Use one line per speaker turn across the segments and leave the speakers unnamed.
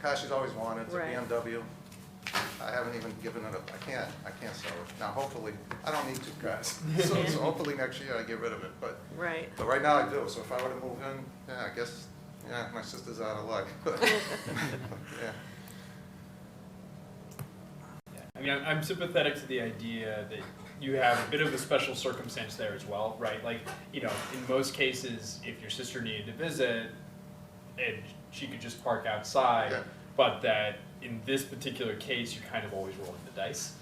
Passy's always wanted, it's a
Right.
BMW. I haven't even given it up, I can't, I can't sell it. Now hopefully, I don't need to, guys. So so hopefully next year I get rid of it, but,
Right.
but right now I do, so if I were to move in, yeah, I guess, yeah, my sister's out of luck. Yeah.
Yeah, I mean, I'm- I'm sympathetic to the idea that you have a bit of a special circumstance there as well, right? Like, you know, in most cases, if your sister needed to visit, and she could just park outside,
Yeah.
but that in this particular case, you're kind of always rolling the dice,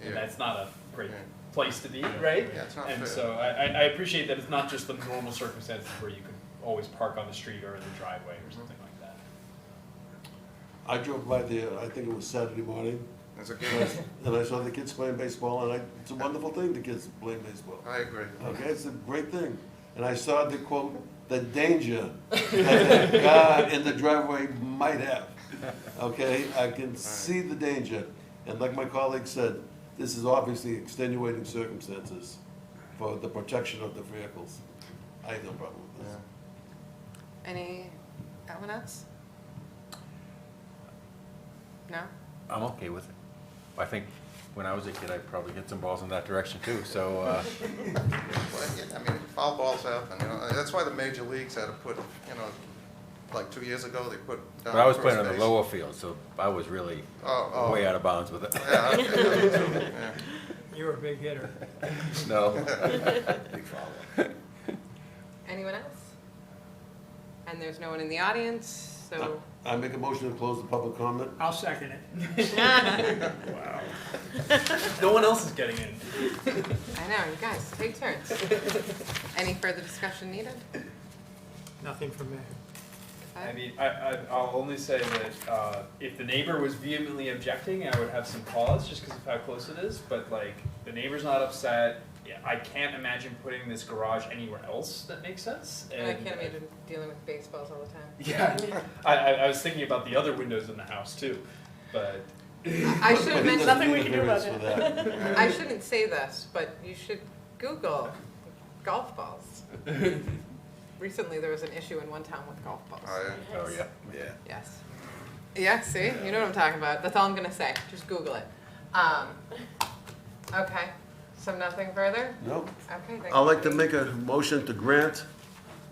Yeah.
and that's not a great
Yeah.
place to be, right?
Yeah, it's not
and
fair.
so I, I I appreciate that it's not just the normal circumstances where you can always park on the street or in the driveway or something like that.
I drove by there, I think it was Saturday morning,
There's a
and
game,
I- and I saw the kids playing baseball, and I, it's a wonderful thing, the kids playing baseball.
I agree.
Okay, it's a great thing. And I saw the quote, the danger that the God in the driveway might have. Okay, I can see the danger. And like my colleague said, this is obviously extenuating circumstances for the protection of the vehicles. I have no problem with
Yeah.
this.
Any, anyone else? No?
I'm okay with it. I think when I was a kid, I probably hit some balls in that direction too, so, uh,
Well, yeah, I mean, foul balls happen, you know, Uh, that's why the major leagues had to put, you know, like two years ago, they put down.
but I was
first
playing on the
base.
lower field, so I was really
Oh, oh.
way out of bounds with it.
Yeah, okay, that was true, yeah.
You're a big hitter.
No.
Anyone else? And there's no one in the audience, so
I make a motion to close the public comment.
I'll second it.
No one else is getting in.
I know, you guys, take turns. Any further discussion needed?
Nothing from me.
I mean, I, I, I'll only say that, uh, if the neighbor was vehemently objecting, I would have some pause, just because of how close it is, but like, the neighbor's not upset. Yeah, I can't imagine putting this garage anywhere else that makes sense,
And I
and. uh,
can't imagine dealing with baseballs all the time.
Yeah, I, I, I was thinking about the other windows in the house too, but,
I should have
But he doesn't
mentioned,
need a variance for that.
I shouldn't say this, but you should Google golf balls. Recently, there was an issue in one town with golf balls.
Oh, yeah.
Oh, yeah, yeah.
Yes. Yeah, see, you know what I'm talking about. That's all I'm gonna say. Just Google it. Um, okay, so nothing further?
No?
Okay, thank
I'd like to
you.
make a motion to grant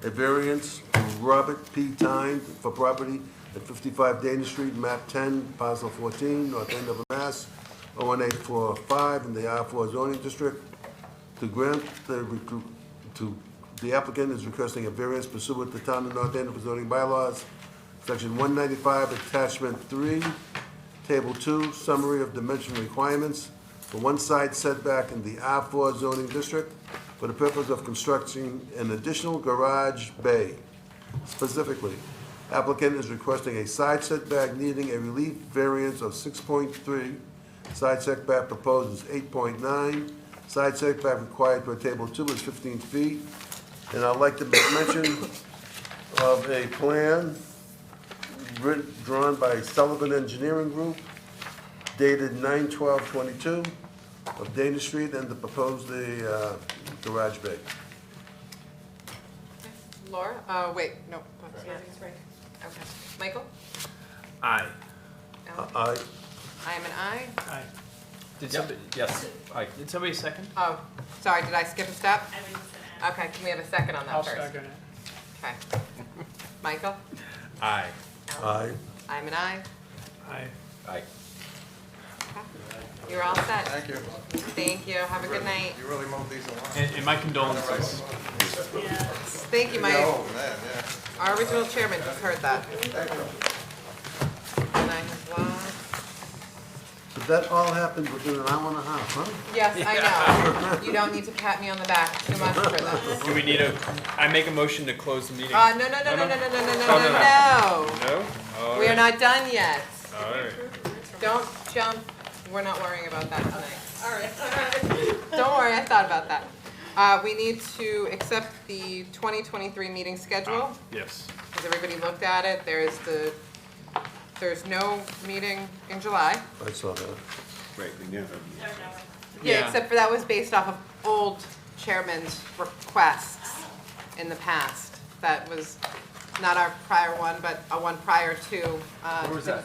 a variance to Robert P. Tyne for property at 55 Dana Street, map 10, parcel 14, north end of Mass, 01845, in the R4 zoning district. To grant the, recru- to, the applicant is requesting a variance pursuant to town of North Andover zoning bylaws, section 195, attachment 3, Table two, summary of dimension requirements for one side setback in the R4 zoning district for the purpose of constructing an additional garage bay. Specifically, applicant is requesting a side setback needing a relief variance of 6.3. Side setback proposed is 8.9. Side setback required per table two is 15 feet. And I'd like to make mention of a plan writ- drawn by Sullivan Engineering Group dated 9/12/22 of Dana Street and the proposed the uh, garage bay.
Laura, uh, wait, no, that's not it. Okay. Michael?
I.
Alan?
I,
I am an I.
Aye.
Did somebody,
Yes, I,
did somebody second?
Oh, sorry, did I skip a step?
I was just gonna ask.
Okay, can we have a second on
I'll
that first?
second it.
Okay. Michael?
I.
I,
I'm an I.
Aye.
I,
You're all set.
Thank you.
Thank you. Have a good night.
You really moved these along.
And, and my condolences.
Yeah.
Thank you, Mike.
Oh, man, yeah.
Our original chairman just heard that. And I have lost.
but that all happened within an hour and a half, huh?
Yes, I know. You don't need to pat me on the back too much for that.
Do we need a, I make a motion to close the meeting?
Uh, no, no, no, no, no, no, no, no,
Oh,
no,
no,
no.
Oh, No? All
We are
right.
not done yet.
All right.
Don't jump. We're not worrying about that tonight. All right. Don't worry, I thought about that. Uh, we need to accept the 2023 meeting schedule.
Yes.
Has everybody looked at it? There is the, there's no meeting in July.
I saw that.
Or no.
Yeah,
Yeah.
except for that was based off of old chairman's requests in the past. That was not our prior one, but a one prior to, uh,
Where was that?